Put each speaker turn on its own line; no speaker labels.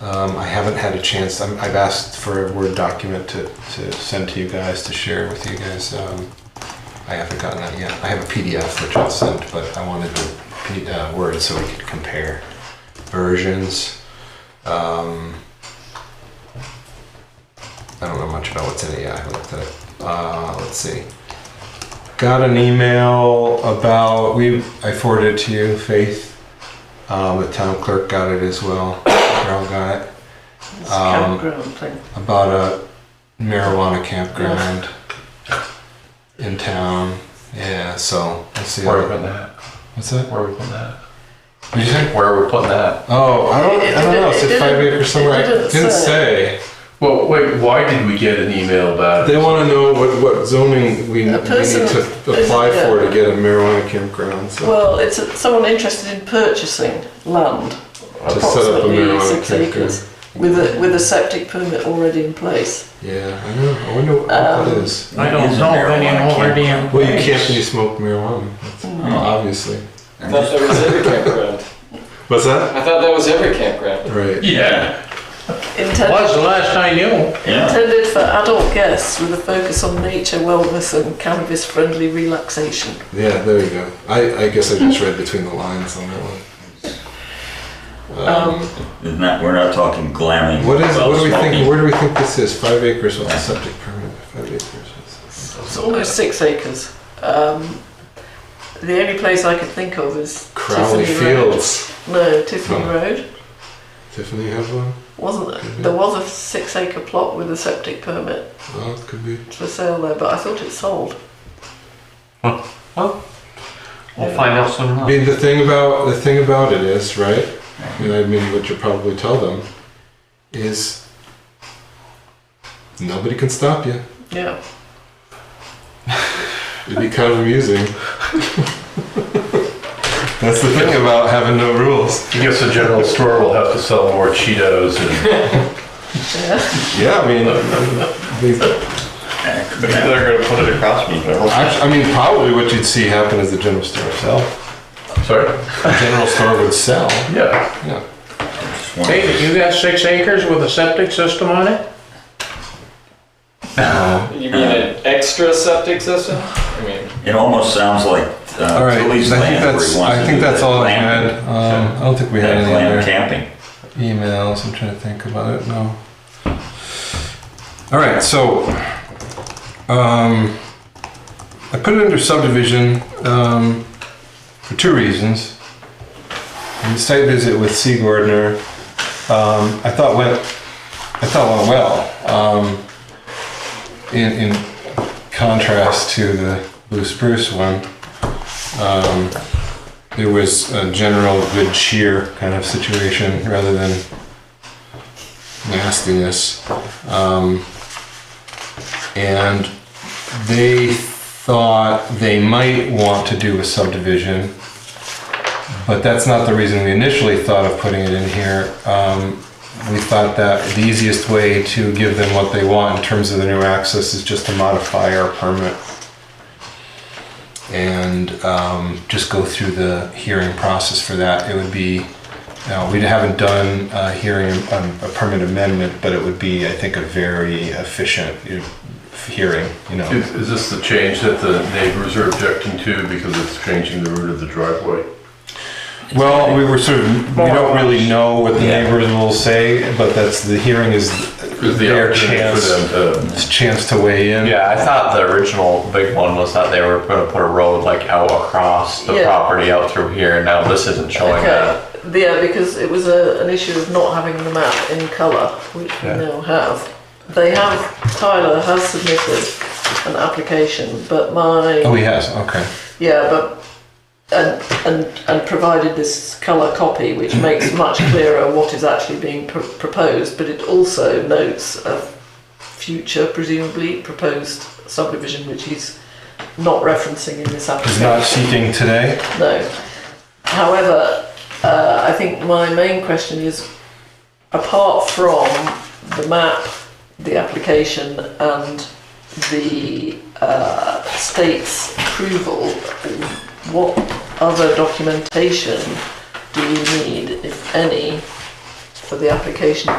Um, I haven't had a chance. I'm, I've asked for a Word document to, to send to you guys to share with you guys. Um, I haven't gotten that yet. I have a PDF which I'll send, but I wanted the P- uh, Word so we could compare versions. Um, I don't know much about what's in it yet. I haven't looked at it. Uh, let's see. Got an email about we. I forwarded it to you, Faith. Um, the town clerk got it as well. Carol got it
It's
Um,
campground thing.
about a marijuana campground in town. Yeah, so let's see.
Where are we putting that?
What's that?
Where are we putting that?
Did you say?
Where are we putting that?
Oh, I don't. I don't know. It
It
said
didn't-
five
it
acres somewhere.
didn't
I didn't say.
Well, wait, why did we get an email about
They
it?
want to know what, what zoning we, we
A
need
person-
to apply
yeah.
for to get a marijuana campground. So.
Well, it's a- someone interested in purchasing land,
To set up a
approximately
marijuana
six
campground.
acres, with a, with a septic permit already in place.
Yeah, I know. I wonder what that
Um,
is.
I don't
Is
know
marijuana
any already in
campground?
Well, you
place.
can't really smoke marijuana, That's- obviously.
I thought that was every campground.
What's that?
I thought that was every campground.
Right.
Yeah,
Intended,
was the last I knew.
Yeah.
intended for adult guests with a focus on nature, wellness and cannabis-friendly relaxation.
Yeah, there you go. I, I guess I just read between the lines on that one.
Um,
Isn't that, we're not talking glamming.
What is?
about
What do we think?
smoking.
Where do we think this is? Five acres. What's the septic permit? Five acres. what's
it's almost six acres. Um, the only place I could think of is
the- Crowley
Tiffany Road.
Fields.
No, Tiffany
No.
Road.
Tiffany has one.
Wasn't
Mm-hmm.
there? There was a six-acre plot with a septic permit
Oh, it could be.
for sale there, but I thought it sold.
We'll find out soon
I
enough.
mean, the thing about the thing about it is right, and I mean, what you probably tell them is nobody can stop you.
Yeah.
It'd be kind of amusing. That's the thing about having no rules.
I guess the general store will have to sell more Cheetos and
Yeah.
Yeah, I mean, they-
Yeah, could happen.
gonna put it across me.
actu- I mean, probably what you'd see happen is the general store sell.
Sorry?
The general store would sell.
Yeah.
Yeah.
Just one-
David, you got six acres with a septic system on it?
You mean an extra septic system? I mean,
It almost sounds like
All
uh,
right. I think
Tilly's land where
that's.
he wants to
I think
do
that's
the
all I had.
glamping.
Um, I don't think we had
Yeah,
any
glam
other
camping.
emails. I'm trying to think about it. No. All right. So, um, I put it under subdivision um, for two reasons. And the site visit with C. Gardner, um, I thought went. I thought went well. Um, in, in contrast to the blue spruce one. Um, it was a general good cheer kind of situation rather than nastiness. Um, and they thought they might want to do a subdivision, but that's not the reason we initially thought of putting it in here. Um, we thought that the easiest way to give them what they want in terms of the new access is just to modify our permit and um, just go through the hearing process for that. It would be, now, we haven't done a hearing, um, a permit amendment, but it would be, I think, a very efficient you know, hearing, you know.
Is, is this the change that the neighbors are objecting to because it's changing the route of the driveway?
Well, we were sort of, we don't really know what the neighbors will say, but that's, the hearing is
Is the
their
opportunity
chance,
for them
it's chance to weigh in.
Yeah, I thought the original big one was that they were gonna put a road like out across the
Yeah.
property out through here, and now this isn't showing that.
Okay. Yeah, because it was a, an issue of not having the map in colour, which we now have. They have, Tyler has submitted an application, but my,
Oh, he has, okay.
yeah, but, and, and, and provided this colour copy, which makes much clearer what is actually being pr- proposed, but it also notes a future, presumably proposed subdivision, which he's not referencing in this
He's
application.
not seeking today?
No. However, uh, I think my main question is, apart from the map, the application, and the uh, state's approval, what other documentation do you need, if any, for the application